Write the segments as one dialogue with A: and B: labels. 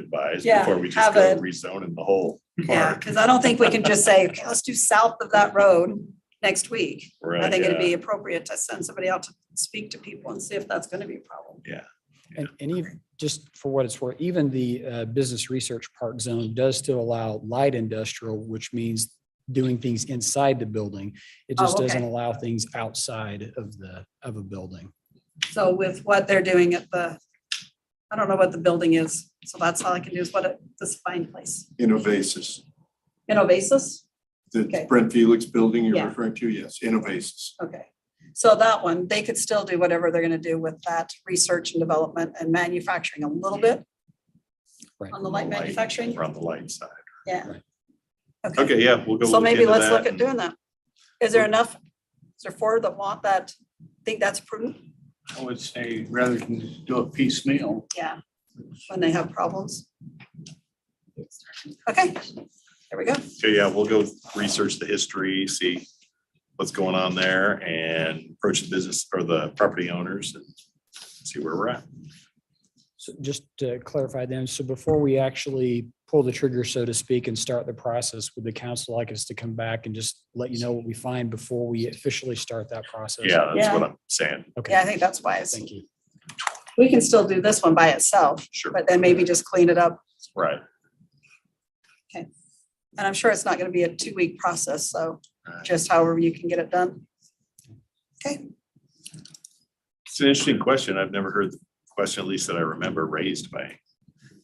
A: advise
B: Yeah,
A: before we just
B: have
A: go
B: it.
A: rezoning the whole
B: Yeah,
A: park.
B: because I don't think we can just say, "Okay, let's do south of that road next week. I
A: Right,
B: think it'd
A: yeah.
B: be appropriate to send somebody out to speak to people and see if that's gonna be a problem.
C: And, and even, just for what it's worth, even the uh, Business Research Park Zone does still allow light industrial, which means doing things inside the building. It
B: Oh,
C: just doesn't
B: okay.
C: allow things outside of the, of a building.
B: So with what they're doing at the, I don't know what the building is, so that's all I can do is what, it- this fine place,
D: Innovasis,
B: in Oasis? Okay.
D: the Brent Felix building
B: Yeah.
D: you're referring to, yes, Innovasis.
B: Okay, so that one, they could still do whatever they're gonna do with that research and development and manufacturing a little bit.
C: Right.
B: On the light manufacturing,
A: We're on the light side.
B: yeah.
A: Okay, yeah, we'll go.
B: So maybe
A: into
B: let's
A: that
B: look at
A: and-
B: doing that. Is there enough, is there four that want that, think that's prudent?
E: I would say rather than just do it piecemeal,
B: Yeah. When they have problems? Okay, there we go.
A: So yeah, we'll go research the history, see what's going on there and approach the business or the property owners and see where we're at.
C: So just to clarify then, so before we actually pull the trigger, so to speak, and start the process, would the council like us to come back and just let you know what we find before we officially start that process?
A: Yeah, that's what I'm saying.
B: Yeah, I
C: Okay,
B: think that's wise.
C: thank you.
B: We can still do this one by itself,
A: Sure,
B: but then maybe just clean it up.
A: right.
B: And I'm sure it's not gonna be a two-week process, so
A: Right.
B: just however you can get it done. Okay,
A: It's an interesting question. I've never heard the question, at least that I remember, raised by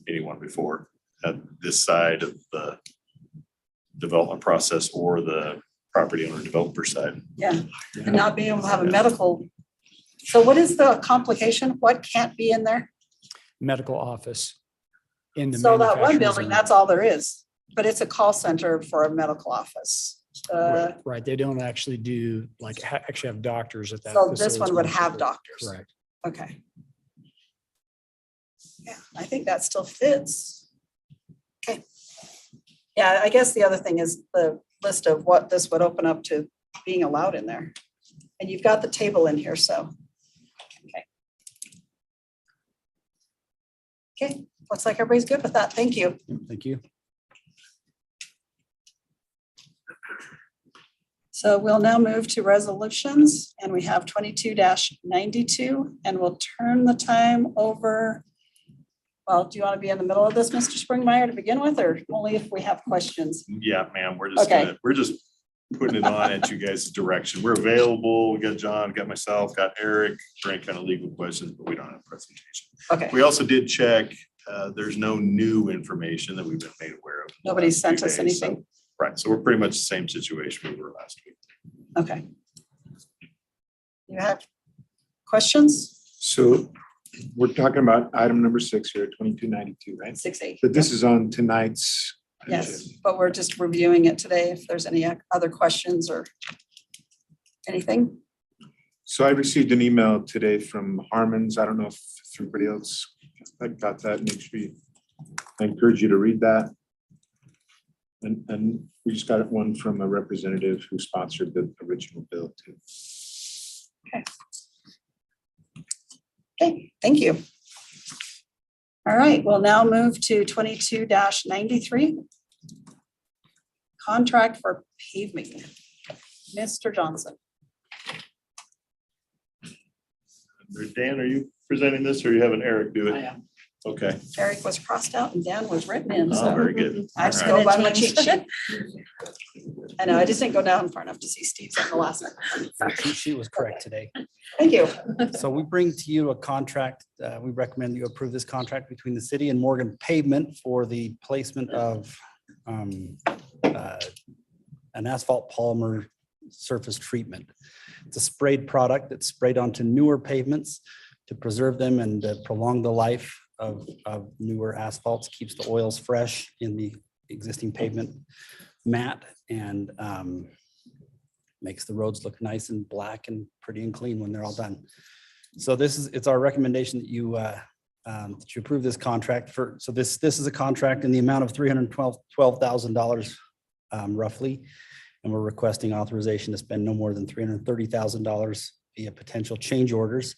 A: anyone before at this side of the development process or the property owner developer side.
B: yeah, and not being able to have a medical. So what is the complication? What can't be in there?
C: Medical office. in the
B: So that one
C: manufacturing
B: building,
C: zone.
B: that's all there is, but it's a call center for a medical office. Uh,
C: Right, Right, they don't actually do, like, ha- actually have doctors at that.
B: So this
C: facility.
B: one would have doctors.
C: Correct.
B: Okay. Yeah, I think that still fits. Okay. Yeah, I guess the other thing is the list of what this would open up to being allowed in there. And you've got the table in here, so. Okay. Okay, looks like everybody's good with that. Thank you.
C: Thank you.
B: So we'll now move to resolutions and we have twenty-two ninety-two and we'll turn the time over. Well, do you want to be in the middle of this, Mr. Springmeyer, to begin with, or only if we have questions?
A: Yeah, ma'am, we're just,
B: Okay.
A: gonna- we're just putting it on at you guys' direction. We're available. We got John, got myself, got Eric, for any kind of legal questions, but we don't have a presentation.
B: Okay,
A: We also did check, uh, there's no new information that we've been made aware of. in the
B: nobody
A: last few
B: sent us
A: days, so-
B: anything.
A: Right, so we're pretty much the same situation we were last week.
B: Okay. You have questions?
F: So we're talking about item number six here, twenty-two ninety-two, right?
B: Six eight.
F: But this is on tonight's.
B: Yes, but we're just reviewing it today. If there's any uh, other questions or anything.
F: So I received an email today from Harmon's. I don't know if everybody else got that. Make sure you, I encourage you to read that. And, and we just got one from a representative who sponsored the original bill too.
B: Okay, thank you. All right, we'll now move to twenty-two ninety-three. Contract for paving. Mr. Johnson,
A: Dan, are you presenting this or you having Eric do it?
E: I am.
A: Okay,
B: Eric was crossed out and Dan was written in,
A: oh,
B: so
A: very good.
B: I just
A: All
B: go
A: right.
B: by my cheat sheet. I know, I just didn't go down far enough to see Steve's on the last one.
G: Your cheat sheet was correct today.
B: Thank you.
G: So we bring to you a contract. uh, We recommend you approve this contract between the city and Morgan Pavement for the placement of um, uh, an asphalt polymer surface treatment. It's a sprayed product that's sprayed onto newer pavements to preserve them and uh, prolong the life of of newer asphalts, keeps the oils fresh in the existing pavement mat and um, makes the roads look nice and black and pretty and clean when they're all done. So this is, it's our recommendation that you, uh, um, that you approve this contract for, so this, this is a contract in the amount of three hundred and twelve, twelve thousand dollars um, roughly. And we're requesting authorization to spend no more than three hundred and thirty thousand dollars via potential change orders.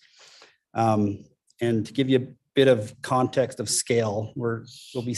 G: Um, And to give you bit of context of scale, we're, we'll be